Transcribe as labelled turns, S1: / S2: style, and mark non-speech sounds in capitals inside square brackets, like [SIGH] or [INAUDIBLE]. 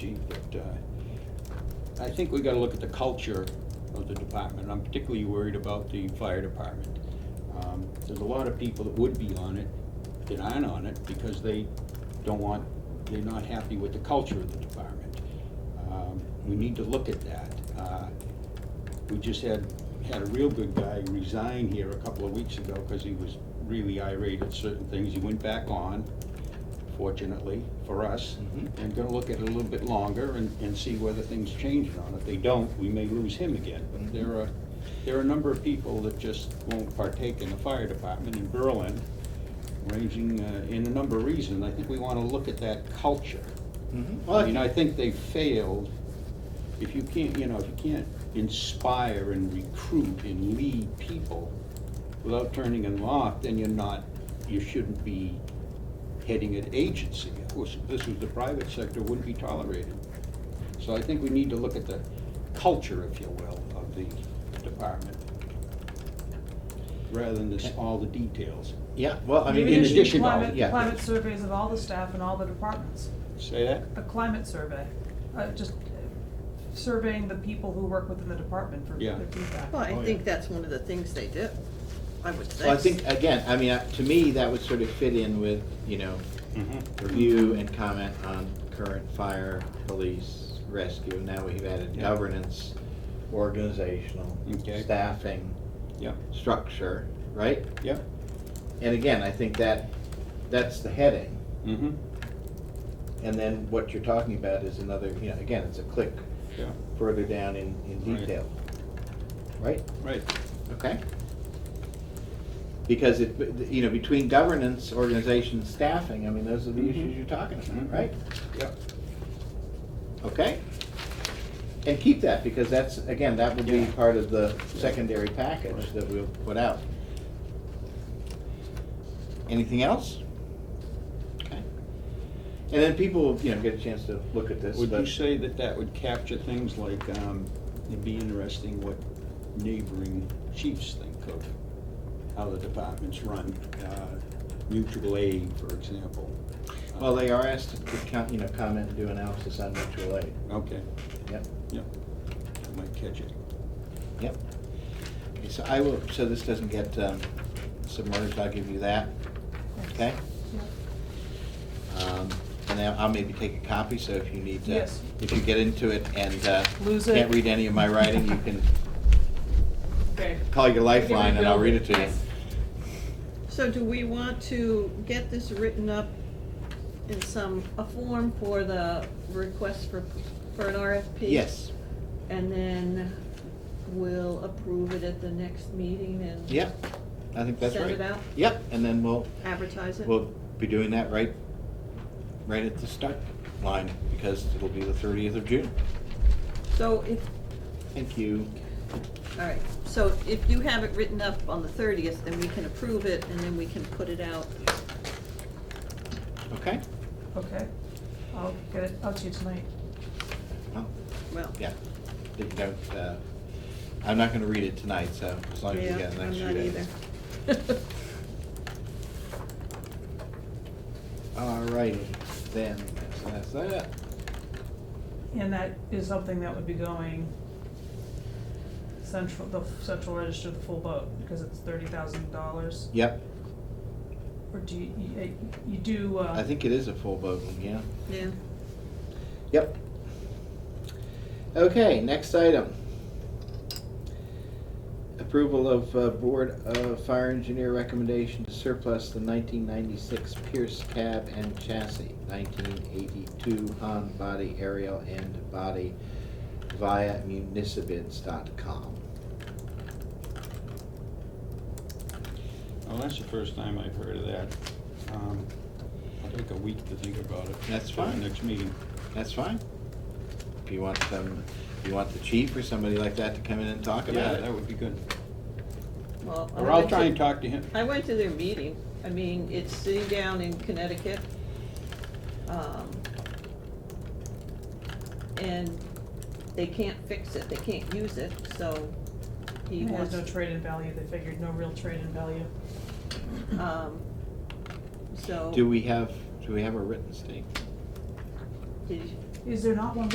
S1: uh, I think we gotta look at the culture of the department. I'm particularly worried about the fire department. Um, There's a lot of people that would be on it, that aren't on it, because they don't want, they're not happy with the culture of the department. Um, We need to look at that. Uh, We just had, had a real good guy resign here a couple of weeks ago, because he was really irate at certain things. He went back on, fortunately, for us
S2: Mhm.
S1: and gonna look at it a little bit longer and, and see whether things change or not. If they don't, we may lose him again. But there are, there are a number of people that just won't partake in the fire department in Berlin, ranging, uh, in a number of reasons. I think we wanna look at that culture.
S2: Mm-hmm.
S1: I mean, I think they failed. If you can't, you know, if you can't inspire and recruit and lead people without turning them off, then you're not, you shouldn't be heading an agency. Of course, if this was the private sector, wouldn't be tolerated. So I think we need to look at the culture, if you will, of the department, rather than this, all the details.
S2: Yeah, well, I mean,
S1: Maybe
S2: in
S1: they should
S2: addition,
S1: climb
S2: to
S1: it-
S2: yeah.
S3: Climate surveys of all the staff and all the departments,
S1: Say that?
S3: a climate survey, uh, just uh, surveying the people who work within the department for
S1: Yeah.
S3: their feedback.
S4: Well,
S2: Oh,
S4: I
S2: yeah.
S4: think that's one of the things they do, I would think.
S2: Well, I think, again, I mean, uh, to me, that would sort of fit in with, you know, review and comment on current fire, police, rescue. Now we've added
S1: Yeah.
S2: governance, organizational,
S1: Okay.
S2: staffing,
S1: Yeah,
S2: structure, right?
S1: yeah,
S2: And again, I think that, that's the heading.
S1: mm-hmm,
S2: And then what you're talking about is another, you know, again, it's a click
S1: yeah,
S2: further down in, in
S1: Right.
S2: detail. Right?
S1: right,
S2: Okay. Because it, you know, between governance, organization, staffing, I mean, those are the
S1: Mhm.
S2: issues you're talking about,
S1: Mhm.
S2: right?
S1: yeah.
S2: Okay? And keep that, because that's, again, that will be
S1: Yeah.
S2: part of the secondary package that we'll put out. Anything else? Okay. And then people, you know, get a chance to look at this,
S1: Would you
S2: but,
S1: say that that would capture things like, um, it'd be interesting what neighboring chiefs think of how the departments run, uh, mutual aid, for example? Uh,
S2: well, they are asked to, co- you know, comment and do analysis on mutual aid.
S1: Okay,
S2: Yep,
S1: yep, that might catch it.
S2: yep. Okay, so I will, so this doesn't get um, submerged, I'll give you that, okay?
S3: Yeah.
S2: Um, And then I'll maybe take a copy, so if you need to,
S3: Yes.
S2: if you get into it and uh,
S3: Lose it.
S2: can't read any of my writing, you can
S3: Okay.
S2: call your lifeline and I'll read it to you.
S3: Yes.
S4: So do we want to get this written up in some, a form for the request for, for an RFP?
S2: Yes,
S4: And then we'll approve it at the next meeting and
S2: yep, I think that's right.
S4: Send it out?
S2: Yep, and then we'll,
S4: advertise it?
S2: we'll be doing that right, right at the start line, because it'll be the thirtieth of June.
S4: So if,
S2: Thank you.
S4: all right, so if you have it written up on the thirtieth, then we can approve it and then we can put it out.
S2: Okay?
S3: Okay, I'll get it out to you tonight.
S2: Well,
S4: Well,
S2: yeah, If you don't, uh, I'm not gonna read it tonight, so as long as you
S4: yeah,
S2: get the next
S4: I'm
S2: few
S4: not
S2: days.
S4: either. [LAUGHS]
S2: All righty, then, so that's that.
S3: And that is something that would be going central, the central register, the full boat, because it's thirty thousand dollars.
S2: Yep,
S3: Or do you, you- you do, uh.
S2: I think it is a full vote, yeah.
S4: Yeah,
S2: Yep. Okay, next item. Approval of uh, Board of Fire Engineer recommendation to surplus the nineteen ninety-six Pierce cab and chassis, nineteen eighty-two Han body aerial and body via municibids.com.
S1: Well, that's the first time I've heard of that. Um, I'll take a week to think about it.
S2: That's
S1: for the
S2: fine.
S1: Next meeting.
S2: That's fine. If you want them, if you want the chief or somebody like that to come in and talk about
S1: Yeah,
S2: it.
S1: that would be good.
S4: well. I
S1: Or I'll
S4: went
S1: try
S4: to-
S1: and talk to him.
S4: I went to their meeting. I mean, it's sitting down in Connecticut. Um, And they can't fix it, they can't use it, so he
S3: It has
S4: wants,
S3: no trade-in value, they figured no real trade-in value.
S4: um, so.
S2: Do we have, do we have a written statement?
S4: did you-
S3: Is there not one